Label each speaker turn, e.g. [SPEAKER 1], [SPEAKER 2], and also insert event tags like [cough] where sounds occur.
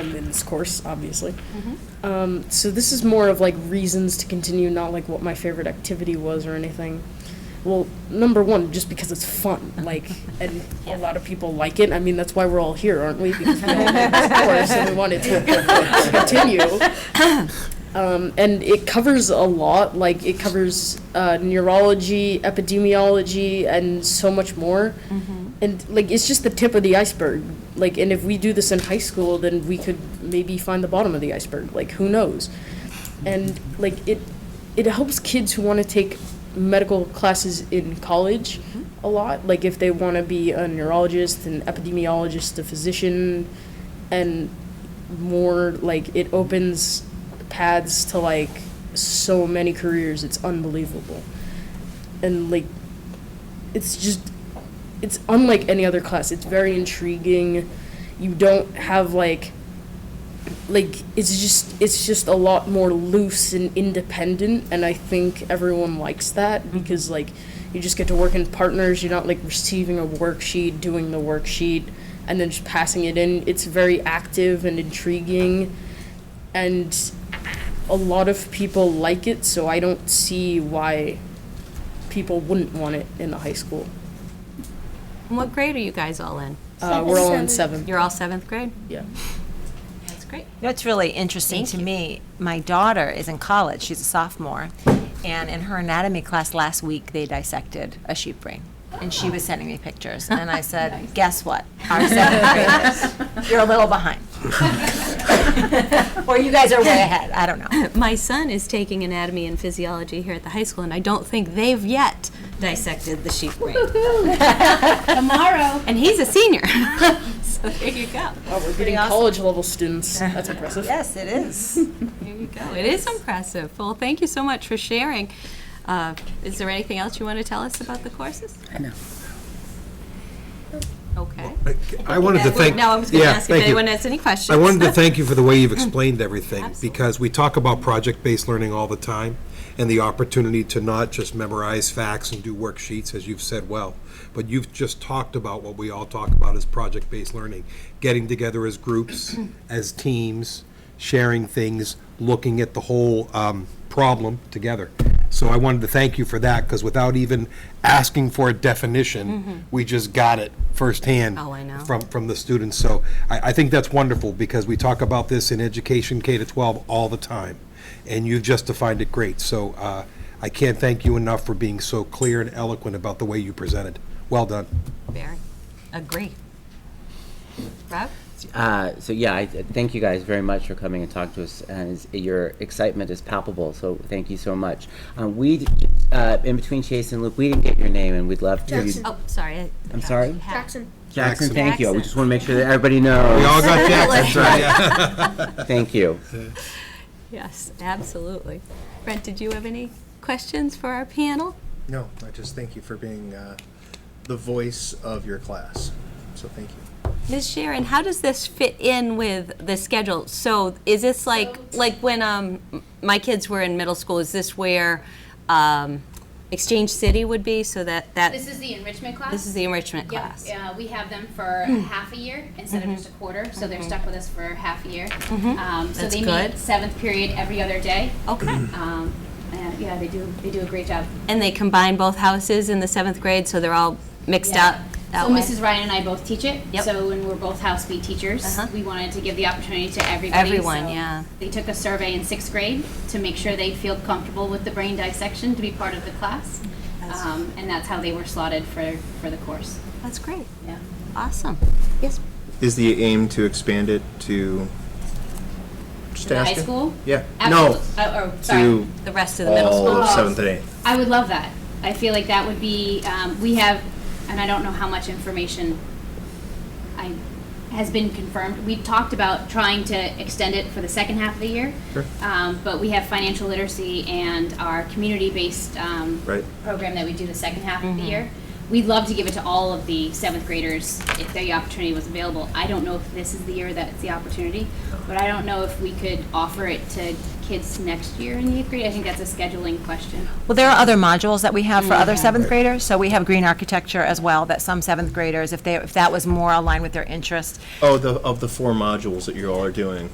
[SPEAKER 1] I'm in this course, obviously. Um, so this is more of like reasons to continue, not like what my favorite activity was or anything. Well, number one, just because it's fun, like, and a lot of people like it. I mean, that's why we're all here, aren't we? Because we all like this course and we want it to continue. Um, and it covers a lot, like it covers uh, neurology, epidemiology, and so much more. And like it's just the tip of the iceberg. Like, and if we do this in high school, then we could maybe find the bottom of the iceberg. Like, who knows? And like it, it helps kids who want to take medical classes in college a lot. Like, if they want to be a neurologist, an epidemiologist, a physician, and more like it opens paths to like so many careers it's unbelievable and like it's just it's unlike any other class it's very intriguing you don't have like like it's just it's just a lot more loose and independent and i think everyone likes that because like you just get to work in partners you're not like receiving a worksheet doing the worksheet and then just passing it in it's very active and intriguing and a lot of people like it so i don't see why people wouldn't want it in the high school
[SPEAKER 2] And [laughs] What grade are you guys all in?
[SPEAKER 1] uh, we're all in seventh
[SPEAKER 2] You're all seventh grade?
[SPEAKER 1] yeah
[SPEAKER 2] That's great.
[SPEAKER 3] You know, it's really interesting
[SPEAKER 2] Thank
[SPEAKER 3] to
[SPEAKER 2] you.
[SPEAKER 3] me. My daughter is in college, she's a sophomore, and in her anatomy class last week, they dissected a sheep brain. And she was sending me pictures, and
[SPEAKER 2] [laughs]
[SPEAKER 3] I said, guess what? Our seventh graders, you're a
[SPEAKER 2] [laughs]
[SPEAKER 3] little behind. Or you guys are way ahead, I don't know.
[SPEAKER 2] My son is taking anatomy and physiology here at the high school, and I don't think they've yet dissected the sheep
[SPEAKER 3] [laughs]
[SPEAKER 2] brain. Tomorrow. And he's a senior. [laughs] So there you go.
[SPEAKER 1] oh, we're getting
[SPEAKER 3] awesome.
[SPEAKER 1] college level students that's impressive
[SPEAKER 3] Yes, it is.
[SPEAKER 2] There you go. It is impressive. Well, thank you so much for sharing. Uh, Is there anything else you want to tell us about the courses? I know. Okay.
[SPEAKER 4] I wanted to thank.
[SPEAKER 2] Now, I was going to
[SPEAKER 4] yeah,
[SPEAKER 2] ask if
[SPEAKER 4] thank you.
[SPEAKER 2] anyone has any questions.
[SPEAKER 4] I wanted to thank you for the way
[SPEAKER 2] [clears throat]
[SPEAKER 4] you've explained everything,
[SPEAKER 2] Absolutely.
[SPEAKER 4] because we talk about project-based learning all the time, and the opportunity to not just memorize facts and do worksheets, as you've said well, but you've just talked about what we all talk about as project-based learning, getting together as
[SPEAKER 2] [clears throat]
[SPEAKER 4] groups, as teams, sharing things, looking at the whole um, problem together. So I wanted to thank you for that, because without even asking for a definition, we just got it firsthand
[SPEAKER 2] Mm-hmm. Oh, I know.
[SPEAKER 4] from from, from the students. So I, I think that's wonderful because we talk about this in education K to 12 all the time, and you've just defined it great. So uh, I can't thank you enough for being so clear and eloquent about the way you presented. Well done.
[SPEAKER 2] Barry, agree. Rob?
[SPEAKER 5] Uh, so yeah, I th- thank you guys very much for coming and talking to us. And it's- your excitement is palpable. So thank you so much. Um, we, d- uh, in between Chase and Luke, we didn't get your name, and we'd love to. hear you-
[SPEAKER 2] Oh, sorry. I-
[SPEAKER 5] I'm sorry,
[SPEAKER 6] Jackson.
[SPEAKER 5] Jackson. Thank you. We
[SPEAKER 2] Jackson.
[SPEAKER 5] just want to make sure that everybody knows.
[SPEAKER 4] Oh, We all got Jackson.
[SPEAKER 5] thank you.
[SPEAKER 2] Yes, absolutely. Brent, did you have any questions for our panel?
[SPEAKER 7] No, I just thank you for being uh, the voice of your class. So thank you.
[SPEAKER 2] Ms. Sharon, how does this fit in with the schedule? So is this like, like when um, m- my kids were in middle school, is this where um, Exchange City would be? So that, that,
[SPEAKER 6] This is the enrichment class.
[SPEAKER 2] this is the enrichment
[SPEAKER 6] Yep,
[SPEAKER 2] class? Hmm. Mm-hmm.
[SPEAKER 6] Uh, we have them for half a year instead of just a quarter, so they're stuck with us for half a year. Um, so
[SPEAKER 2] That's
[SPEAKER 6] they
[SPEAKER 2] good. Oh.
[SPEAKER 6] meet seventh period every other day.
[SPEAKER 2] Okay.
[SPEAKER 6] Um, and, yeah, they do. They do a great job.
[SPEAKER 2] And they combine both houses in the seventh grade, so they're all mixed
[SPEAKER 6] Yeah.
[SPEAKER 2] up that
[SPEAKER 6] so
[SPEAKER 2] way?
[SPEAKER 6] Mrs. Ryan and I both teach it.
[SPEAKER 2] Yep.
[SPEAKER 6] So when we're both house beat teachers,
[SPEAKER 2] Uh-huh.
[SPEAKER 6] we wanted to give the opportunity to everybody.
[SPEAKER 2] Everyone,
[SPEAKER 6] so
[SPEAKER 2] yeah.
[SPEAKER 6] They took a survey in sixth grade to make sure they feel comfortable with the brain dissection to be part of the class, um, and that's how they were slotted for for the course.
[SPEAKER 2] That's great.
[SPEAKER 6] Yeah.
[SPEAKER 2] Awesome. Yes,
[SPEAKER 7] Is the aim to expand it to? Just
[SPEAKER 6] To the high
[SPEAKER 7] asking?
[SPEAKER 6] school?
[SPEAKER 7] Yeah.
[SPEAKER 6] Absolute- uh, or, sorry.
[SPEAKER 7] No,
[SPEAKER 2] the rest
[SPEAKER 7] to
[SPEAKER 2] of the middle school.
[SPEAKER 7] all seventh and eighth.
[SPEAKER 6] I would love that. I feel like that would be, um, we have, and I don't know how much information I, has been confirmed. We talked about trying to extend it for the second half of the year.
[SPEAKER 7] Sure.
[SPEAKER 6] Um, but we have financial literacy and our community-based, um,
[SPEAKER 7] Right.
[SPEAKER 6] program that we do the second half of the year. we'd love to give it to all of the seventh graders if the opportunity was available. I don't know if this is the year that's the opportunity, but I don't know if we could offer it to kids next year in the eighth grade. I think that's a scheduling question.
[SPEAKER 3] Well, there are other modules that we have for other seventh graders, so we have green architecture as well, that some seventh graders, if they, if that was more aligned with their interest,
[SPEAKER 7] Oh, the, of the four modules that you all are doing.